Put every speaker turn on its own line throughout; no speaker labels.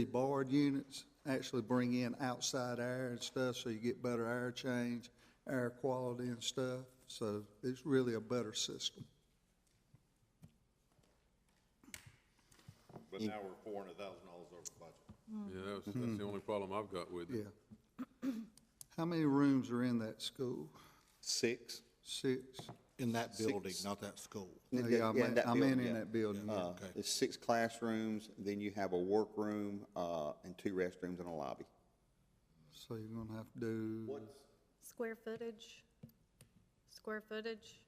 The barred units actually bring in outside air and stuff, so you get better air change, air quality and stuff. So it's really a better system.
But now we're four hundred thousand dollars over budget.
Yeah, that's, that's the only problem I've got with
Mm-hmm. Yeah.
it.
How many rooms are in that school?
Six?
Six?
In that building, not that school.
No, yeah, I'm in- I'm in, in that building. yeah.
Uh, There's six classrooms, then you have a workroom, uh, and two restrooms and a lobby.
So you're gonna have to do,
Square footage, square footage,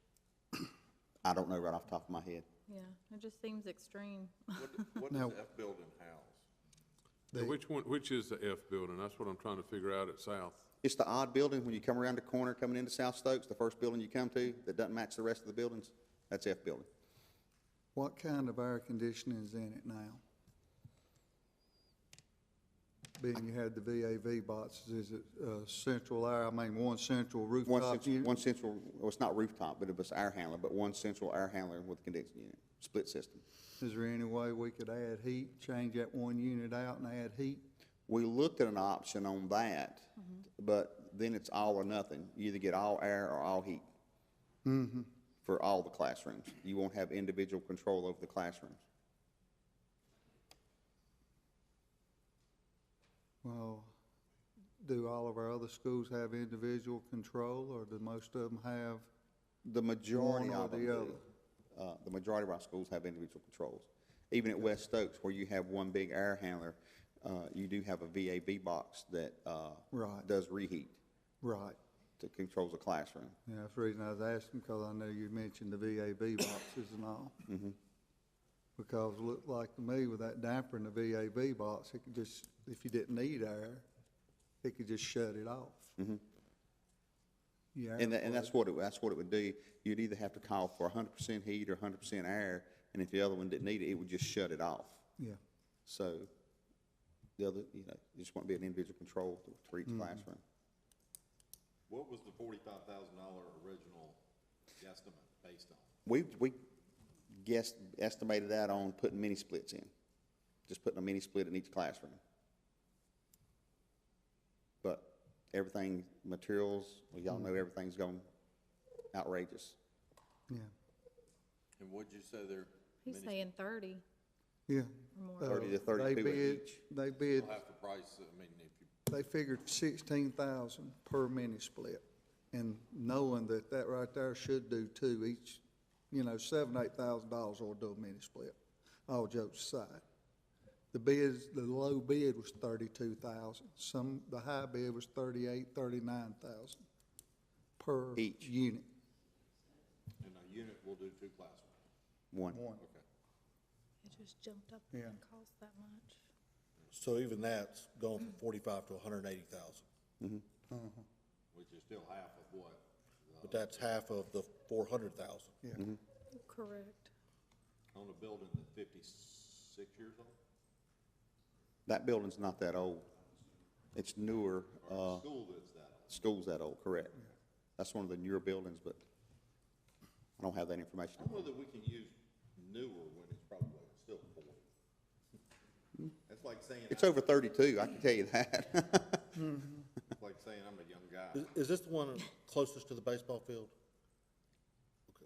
I don't know right off the top of my head.
yeah, it just seems extreme.
What, what
Now-
does that building house?
So Which one, which is the F building? That's what I'm trying to figure out at South.
It's the odd building, when you come around the corner coming into South Stokes, the first building you come to that doesn't match the rest of the buildings, that's F building.
what kind of air conditioning is in it now? Being you had the VAV boxes, is it, uh, central air, I mean, one central
One
rooftop
central,
unit?
one central, well, it's not rooftop, but it was air handler, but one central air handler with condensing unit, split system.
Is there any way we could add heat, change that one unit out and add heat?
We looked at an option on that,
Mm-hmm.
but then it's all or nothing. You either get all air or all heat.
Mm-hmm.
For all the classrooms. You won't have individual control over the classrooms.
Well, do all of our other schools have individual control, or do most of them have?
The majority
One or
of them
the
do. Uh, the majority of our schools have individual controls. Even at West Stokes, where you have one big air handler, uh, you do have a VAV box that, uh,
Right.
does reheat,
Right.
that controls the classroom.
Yeah, that's the reason I was asking, because I know you mentioned the VAB boxes and all.
Mm-hmm.
Because it looked like to me with that damper in the VAB box, it could just, if you didn't need air, it could just shut it off. Yeah.
Mm-hmm. And that, and that's what it, that's what it would do. You'd either have to call for hundred percent heat or hundred percent air, and if the other one didn't need it, it would just shut it off.
Yeah,
So, the other, you know, it just won't be an individual control for each classroom.
What was the forty-five thousand dollar original estimate based on?
We, we guessed, estimated that on putting mini splits in, just putting a mini split in each classroom. But everything, materials, well, y'all know everything's gone outrageous.
yeah,
And what'd you say there?
He's saying thirty
yeah.
or more.
Uh,
Thirty to
They
thirty-two at
bid,
each.
they bid
Half the price, I mean, if you,
they figured sixteen thousand per mini split. And knowing that that right there should do two each, you know, seven, eight thousand dollars will do a mini split, all jokes aside. The bids, the low bid was thirty-two thousand, some, the high bid was thirty-eight, thirty-nine thousand per
Each.
unit.
in a unit, we'll do two classrooms.
One.
Okay.
It just jumped up
Yeah.
and cost that much.
So even that's gone from forty-five to hundred and eighty thousand.
Mm-hmm. Uh-huh.
Which is still half of what?
But that's half of the four hundred thousand.
Yeah,
Mm-hmm.
Correct.
On a building that's fifty-six years old?
That building's not that old. It's newer, uh,
Or a school that's that old?
school's that old, correct? That's one of the newer buildings, but I don't have that information.
I don't know that we can use newer when it's probably still forty. That's like saying,
It's
I'm-
over thirty-two, I can tell you that.
it's like saying I'm a young guy.
Is, is this the one closest to the baseball field?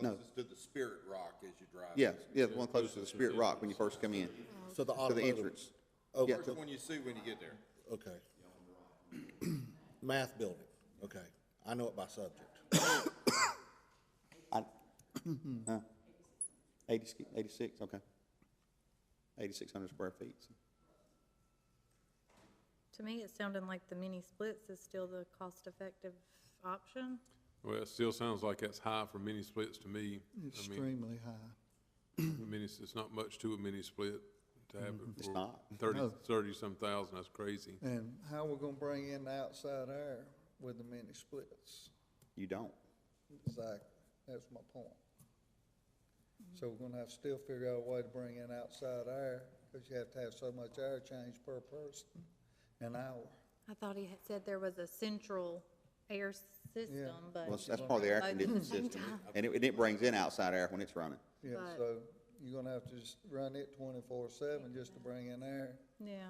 No.
Closest to the Spirit Rock as you drive.
Yes, yeah, the one closest to the Spirit Rock when you first come in,
So the
to the
automotive?
entrance.
Oh,
Yeah,
First one you see when you get there.
okay. Math building, okay. I know it by subject.
I, huh. 80 sk- 86, okay. Eighty-six hundred square feet.
To me, it sounded like the mini splits is still the cost-effective option.
Well, it still sounds like that's high for mini splits to me. I mean,
extremely high.
mini, it's not much to a mini split to have it
It's
for
not.
thirty,
No.
thirty-some thousand, that's crazy.
And how we gonna bring in the outside air with the mini splits?
You don't.
Exactly, that's my point. So we're gonna have to still figure out a way to bring in outside air, because you have to have so much air change per person an hour.
I thought he had said there was a central air system, but.
Well, that's- that's part of the air conditioning system. And it, and it brings in outside air when it's running.
Yeah,
Right.
so you're gonna have to just run it twenty-four seven just to bring in air.
Yeah,